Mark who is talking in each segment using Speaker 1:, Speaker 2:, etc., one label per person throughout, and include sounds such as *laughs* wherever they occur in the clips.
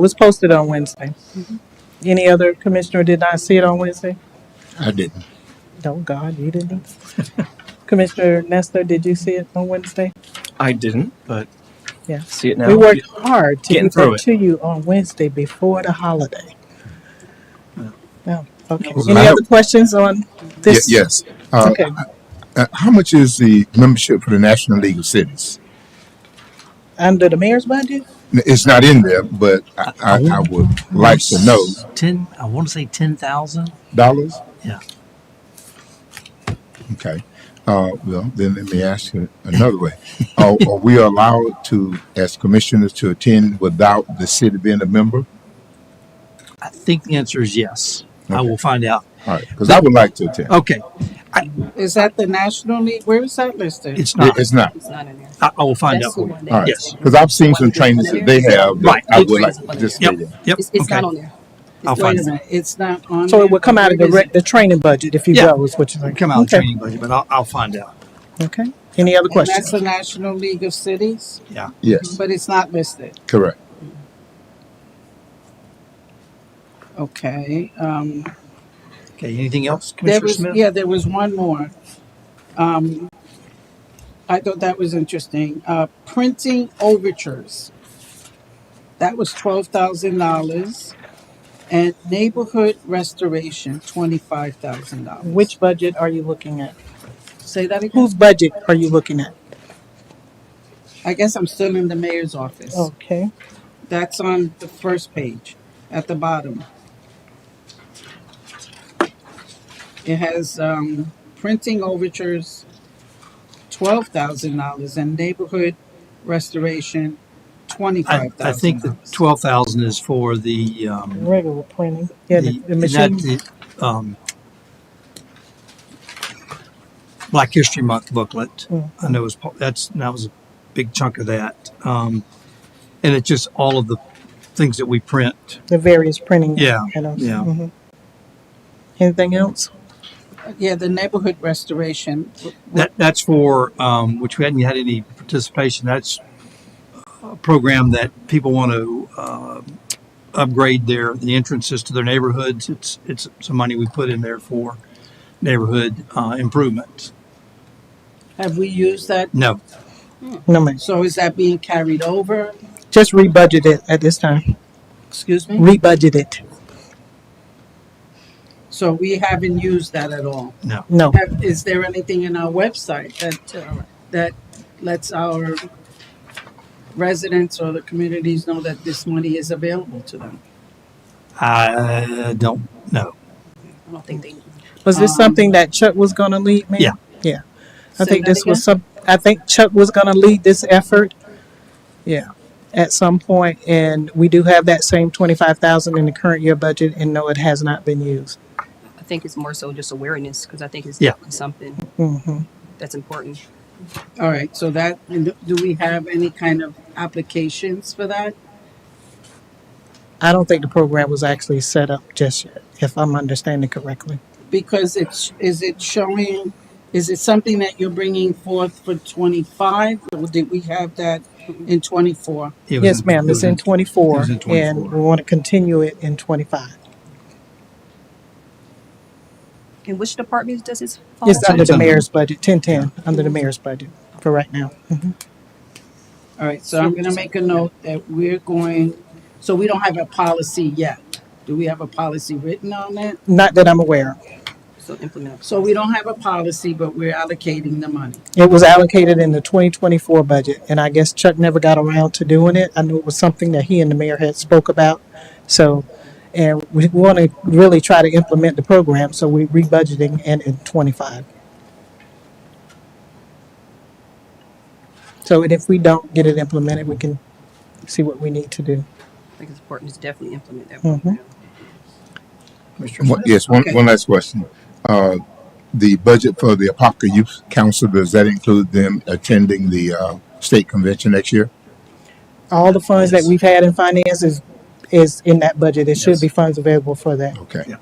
Speaker 1: It was posted on Wednesday.
Speaker 2: Mm-hmm.
Speaker 1: Any other commissioner did not see it on Wednesday?
Speaker 3: I didn't.
Speaker 1: No, God, you didn't. *laughs* Commissioner Nestor, did you see it on Wednesday?
Speaker 4: I didn't, but
Speaker 1: Yeah.
Speaker 4: see it now.
Speaker 1: We worked hard to
Speaker 4: Getting
Speaker 1: get that
Speaker 4: through it.
Speaker 1: to you on Wednesday before the holiday. Yeah, okay.
Speaker 3: was
Speaker 1: Any
Speaker 3: loud.
Speaker 1: other questions on this?
Speaker 3: Ye- yes. Uh,
Speaker 1: Okay,
Speaker 3: uh, how much is the membership for the National League of Cities?
Speaker 1: under the mayor's budget?
Speaker 3: N- It's not in there, but I, I, I would like to know
Speaker 5: Ten, I want to say ten thousand.
Speaker 3: dollars.
Speaker 5: Yeah.
Speaker 3: Okay. Uh, well, then let me ask you another way. Are, are we allowed to, as commissioners, to attend without the city being a member?
Speaker 5: I think the answer is yes. I will find out.
Speaker 3: All right, because I would like to attend.
Speaker 5: Okay,
Speaker 2: Is that the National League? Where is that listed?
Speaker 5: it's
Speaker 3: It-
Speaker 5: not.
Speaker 3: It's not.
Speaker 6: It's not in there.
Speaker 5: I, I will find out
Speaker 6: That's the
Speaker 5: for you.
Speaker 6: one
Speaker 3: All
Speaker 6: that.
Speaker 3: right.
Speaker 5: uh, Yes.
Speaker 3: Because I've seen some trainings that they have. that
Speaker 5: Right.
Speaker 3: I would like to just
Speaker 5: Yep. Yep.
Speaker 6: It's, it's
Speaker 5: okay.
Speaker 6: not on there.
Speaker 5: I'll
Speaker 2: Wait
Speaker 5: find
Speaker 2: a
Speaker 5: out.
Speaker 2: minute, it's not on.
Speaker 1: So
Speaker 2: there?
Speaker 1: it would come out of the,
Speaker 2: Where is
Speaker 1: rec- the training budget if you
Speaker 5: Yeah.
Speaker 1: go, is what you're
Speaker 5: It'll
Speaker 1: saying?
Speaker 5: Come out of the
Speaker 1: Okay,
Speaker 5: training budget, but I'll, I'll find out.
Speaker 1: okay. Any other
Speaker 2: it? And that's
Speaker 1: questions?
Speaker 2: the National League of Cities,
Speaker 5: Yeah.
Speaker 3: Yes,
Speaker 2: but it's not listed.
Speaker 3: correct.
Speaker 2: Okay, um,
Speaker 5: Okay. Anything else,
Speaker 2: there
Speaker 5: Commissioner
Speaker 2: was,
Speaker 5: Smith?
Speaker 2: yeah, there was one more. Um, I thought that was interesting. Uh, printing overtures. That was twelve thousand dollars. And neighborhood restoration, twenty-five thousand dollars.
Speaker 1: Which budget are you looking at?
Speaker 2: Say that again.
Speaker 1: Whose budget are you looking at?
Speaker 2: I guess I'm still in the mayor's office.
Speaker 1: Okay.
Speaker 2: That's on the first page at the bottom. It has um, printing overtures, twelve thousand dollars, and neighborhood restoration,
Speaker 5: I,
Speaker 2: twenty-five
Speaker 5: I
Speaker 2: thousand
Speaker 5: think the
Speaker 2: dollars.
Speaker 5: twelve thousand is for the um,
Speaker 1: regular printing. Yeah, the, the machine.
Speaker 5: Not the, um, Black History Month booklet.
Speaker 1: Mm.
Speaker 5: I know is pa- that's that was a big chunk of that, um, and it's just all of the things that we print.
Speaker 1: the various printing.
Speaker 5: Yeah,
Speaker 1: items.
Speaker 5: yeah.
Speaker 1: Mhm. Anything else?
Speaker 2: Yeah, the neighborhood restoration.
Speaker 5: That that's for um, which we hadn't had any participation. That's a program that people want to uh, upgrade their the entrances to their neighborhoods. It's it's some money we put in there for neighborhood uh, improvements.
Speaker 2: Have we used that?
Speaker 5: No,
Speaker 1: No, ma'am.
Speaker 2: So is that being carried over?
Speaker 1: Just rebudget it at this time.
Speaker 2: Excuse me?
Speaker 1: Rebudget it.
Speaker 2: So we haven't used that at all.
Speaker 5: no.
Speaker 1: No.
Speaker 2: Have- Is there anything in our website that, uh, that lets our residents or the communities know that this money is available to them?
Speaker 5: I don't know.
Speaker 6: I don't think they.
Speaker 1: Was this
Speaker 2: Um,
Speaker 1: something that Chuck was going to lead, ma'am?
Speaker 5: Yeah.
Speaker 1: Yeah. I
Speaker 2: Say
Speaker 1: think
Speaker 2: that
Speaker 1: this was some, I think Chuck was going to lead this effort. Yeah. At some point, and we do have that same twenty-five thousand in the current year budget, and no, it has not been used.
Speaker 6: I think it's more so just awareness because I think it's
Speaker 5: Yeah.
Speaker 6: definitely something
Speaker 1: Mm-hmm.
Speaker 6: that's important.
Speaker 2: All right, so that, and do we have any kind of applications for that?
Speaker 1: I don't think the program was actually set up just yet, if I'm understanding correctly.
Speaker 2: Because it's, is it showing, is it something that you're bringing forth for twenty-five? Or did we have that in twenty-four?
Speaker 5: It was
Speaker 1: Yes, ma'am,
Speaker 5: it
Speaker 1: it's
Speaker 5: was
Speaker 1: in
Speaker 5: it
Speaker 1: twenty-four,
Speaker 5: was in
Speaker 1: and
Speaker 5: 24.
Speaker 1: we want to continue it in twenty-five.
Speaker 6: In which department does this fall?
Speaker 1: It's
Speaker 5: Awesome.
Speaker 1: under the
Speaker 5: It's under-
Speaker 1: mayor's budget, ten-ten, under the mayor's budget for right now. Mhm.
Speaker 2: All right, so I'm gonna make a note that we're going, so we don't have a policy yet. Do we have a policy written on it?
Speaker 1: Not that I'm aware of.
Speaker 6: So implement.
Speaker 2: So we don't have a policy, but we're allocating the money.
Speaker 1: It was allocated in the twenty-twenty-four budget, and I guess Chuck never got around to doing it. I knew it was something that he and the mayor had spoke about, so, and we want to really try to implement the program, so we rebudgeting and in twenty-five. So, and if we don't get it implemented, we can see what we need to do.
Speaker 6: I think it's important to definitely implement that.
Speaker 1: Mhm.
Speaker 6: program.
Speaker 5: Commissioner
Speaker 3: One-
Speaker 5: Smith?
Speaker 3: Yes, one,
Speaker 2: Okay.
Speaker 3: one last question. Uh, the budget for the Apopka Youth Council, does that include them attending the, uh, state convention next year?
Speaker 1: All the funds that we've had in finance is, is in that budget. There should be funds available for that.
Speaker 3: Okay.
Speaker 5: Yeah.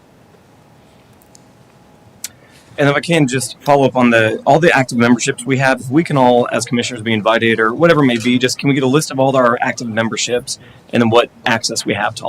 Speaker 4: And if I can just follow up on the all the active memberships we have, if we can all, as commissioners, be invited or whatever it may be, just can we get a list of all our active memberships and then what access we have to all?